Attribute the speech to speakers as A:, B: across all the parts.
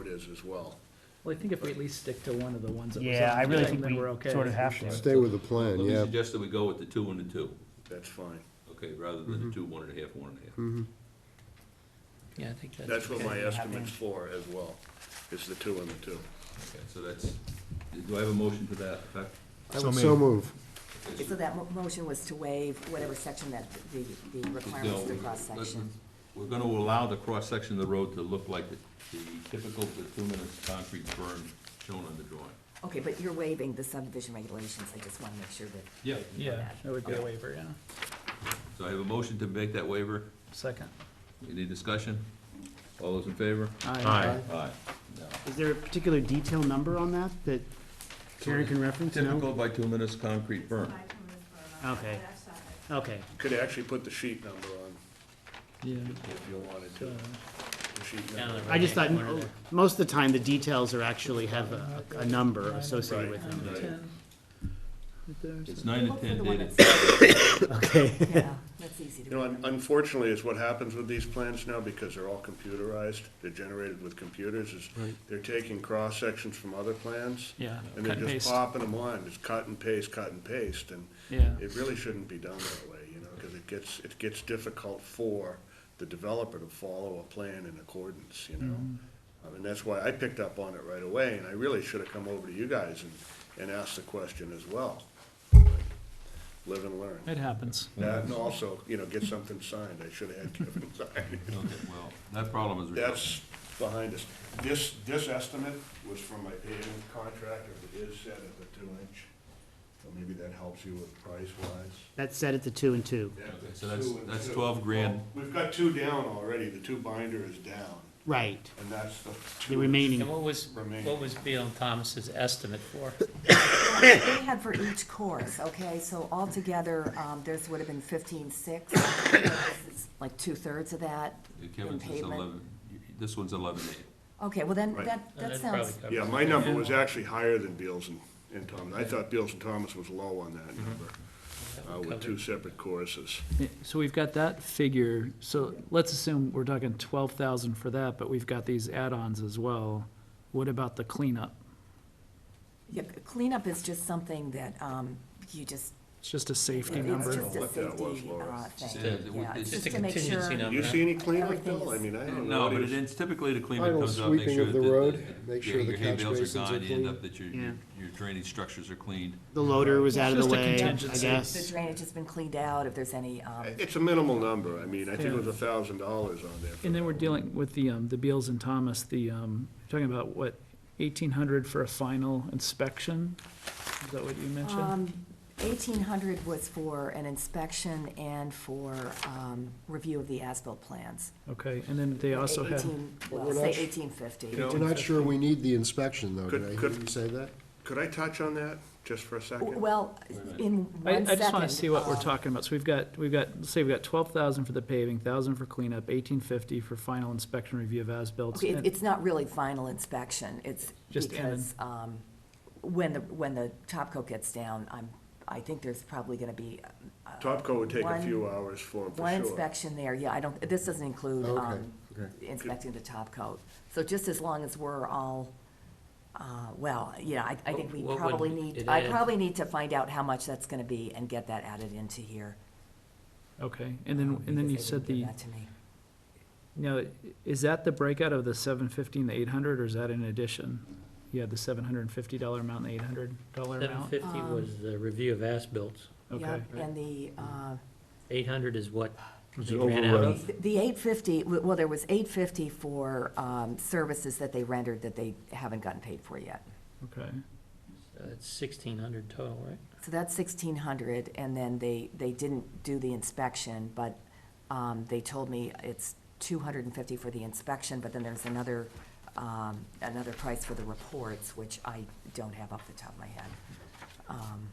A: it is as well.
B: Well, I think if we at least stick to one of the ones that was on.
C: Yeah, I really
B: there,
C: think
B: then
C: we
B: we're okay.
C: sort of have to.
D: Stay with the plan,
E: Let me
D: yeah.
E: suggest that we go with the two and the two,
A: That's fine.
E: okay, rather than the two, one and a half, one and a half.
B: Yeah, I think that's.
A: That's what
B: okay.
A: my
C: Yeah, I
A: estimate's
C: think-
A: for as well, is the two and the two.
E: Okay, so that's, do I have a motion to that effect?
D: So move.
F: So that mo- motion was to waive whatever section that the, the requirements of the
E: No,
F: cross-section.
E: listen, We're gonna allow the cross-section of the road to look like the the typical bituminous concrete burn shown on the drawing.
F: Okay, but you're waiving the subdivision regulations, I just want to make sure that,
E: Yeah.
B: Yeah, that would be a waiver, yeah.
E: So I have a motion to make that waiver.
B: Second.
E: Any discussion? All those in favor?
B: Aye.
E: Aye. No.
C: Is there a particular detail number on that that Karen can reference?
E: Typical
C: No?
E: bituminous concrete burn.
C: Okay. Okay,
A: Could actually put the sheet number on
B: Yeah.
A: if you wanted to. The sheet
B: Yeah,
A: number.
B: the-
C: I just thought, most of the time, the details are actually have a, a number associated with them.
A: Right.
B: Ten. Right there, so-
E: It's nine and
F: look for
E: ten
F: the one
E: dated.
F: that's,
C: Okay.
F: yeah, that's easy to
A: You know,
F: remember.
A: un- unfortunately, it's what happens with these plans now, because they're all computerized, they're generated with computers, is they're taking cross-sections from other plans.
B: Yeah,
A: And
B: cut
A: they're
B: and
A: just
B: paste.
A: popping them on, it's cut and paste, cut and paste, and
B: Yeah.
A: it really shouldn't be done that way, you know, because it gets, it gets difficult for the developer to follow a plan in accordance, you know?
B: Mm-hmm.
A: I mean, that's why I picked up on it right away, and I really should have come over to you guys and, and asked the question as well. Live and learn.
B: It happens.
A: That,
E: Mm-hmm.
A: and also, you know, get something signed, I should have had Kevin sign it.
E: Okay, well, that problem is resolved.
A: That's behind us. This, this estimate was from a paving contractor, it is set at the two inch, so maybe that helps you with price wise.
C: That's set at the two and two.
E: so that's- that's 12 grand.
A: We've got two down already, the two binder is down,
C: Right,
A: and that's the two.
C: the remaining,
G: And what was,
A: Remain.
G: what was Bill and Thomas's estimate for?
F: They had for each course, okay, so altogether, um, there's would have been fifteen-six, like two-thirds of that
E: Yeah,
F: in
E: Kevin's is
F: pavement.
E: eleven, this one's eleven eight.
F: Okay, well then,
A: Right.
F: that,
G: And
F: that
G: that probably
F: sounds,
G: covers
A: Yeah,
G: it.
A: my number was actually higher than Beals and, and Thomas. I thought Beals and Thomas was low on
E: Mm-hmm.
A: that number,
G: That
A: uh,
G: would
A: with
G: cover
A: two
G: it.
A: separate choruses.
B: Yeah, So we've got that figure, so let's assume we're talking twelve thousand for that, but we've got these add-ons as well. What about the cleanup?
F: yeah, cleanup is just something that, um, you just,
B: It's just a safety
F: it's
B: number.
F: just a
A: What that was,
F: safety,
A: Laura.
F: uh,
E: Just
F: thing,
E: a-
F: yeah, it's just
G: Just a
F: to make sure.
A: Do
G: contingency
A: you
G: number.
A: see any cleanup,
F: Everything
A: Bill? I
F: is-
A: mean, I don't know.
E: No,
A: what
E: but
A: he was-
E: it's typically the cleanup
D: Final
E: comes out, make
D: sweeping
E: sure
D: of
E: that
D: the
E: the.
D: road, make
E: yeah,
D: sure the
E: your hay
D: catch
E: bales are
D: basins are
E: gone, you end
D: clean.
E: up that your, your
C: Yeah.
E: your drainage structures are cleaned.
C: the loader was out of the
B: Just a
C: way, I
B: contingency.
F: The
C: guess.
F: drainage has been cleaned out, if there's any, um,
A: It's a minimal number. I mean, I think it was
B: Yeah.
A: a thousand dollars on there. for
B: And
A: that
B: then we're
A: one.
B: dealing with the, um, the Beals and Thomas, the, um, you're talking about what, eighteen hundred for a final inspection? Is that what you mentioned?
F: Um, Eighteen hundred was for an inspection and for um, review of the asphalt plans.
B: Okay, and then they also have,
F: 18 Well,
D: we're
F: say
D: not sh-
F: eighteen fifty.
A: You know,
D: We're not sure we need the inspection, though,
A: Could-
D: did I hear
A: could-
D: you say that?
A: Could I touch on that just for a second?
F: Well, in
B: I,
F: one second.
B: I just wanna see what we're
F: um,
B: talking about. So we've got, we've got, let's say we've got twelve thousand for the paving, thousand for cleanup, eighteen fifty for final inspection review of as-built.
F: Okay, it-
B: and-
F: it's not really final inspection, it's
B: Just in and-
F: because um, when the, when the top coat gets down, I'm, I think there's probably gonna be uh,
A: Topco would take a
F: One-
A: few hours for him, for
F: one
A: sure.
F: inspection there, yeah, I don't, this doesn't include
D: Okay,
F: um, inspecting the top coat. So just as long as we're all, uh, well, yeah, I, I think we
G: What- what would
F: probably need,
G: it
F: I
G: add?
F: probably need to find out how much that's gonna be and get that added into here.
B: Okay, and then, and then you
F: Oh, because they
B: said
F: didn't
B: the,
F: give that to me.
B: now, is that the breakout of the seven fifty and the eight hundred, or is that in addition? You had the seven hundred and fifty dollar amount and the eight hundred dollar
G: Seven
B: amount?
G: fifty was the review of as-bills.
B: Okay.
F: Yep, And the, uh,
G: Eight hundred is what they ran out of.
F: the eight fifty, well, there was eight fifty for um, services that they rendered that they haven't gotten paid for yet.
B: Okay,
G: Uh, It's sixteen hundred total, right?
F: So that's sixteen hundred, and then they, they didn't do the inspection, but, um, they told me it's two hundred and fifty for the inspection, but then there's another, um, another price for the reports, which I don't have off the top of my head. um,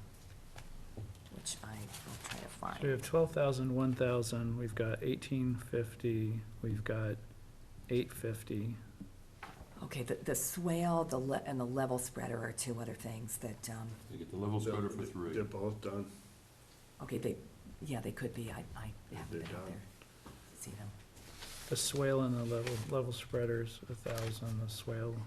F: Which I will try to
B: so we
F: find.
B: have twelve thousand, one thousand, we've got eighteen fifty, we've got eight fifty.
F: Okay, the, the swale, the le, and the level spreader are two other things that, um,
E: You get the level spreader for three.
A: They're both done.
F: okay, they, yeah, they could be, I, I haven't been
A: They're
F: out
A: done.
F: there. to See them.
B: The swale and the level, level spreaders, a thousand, the swale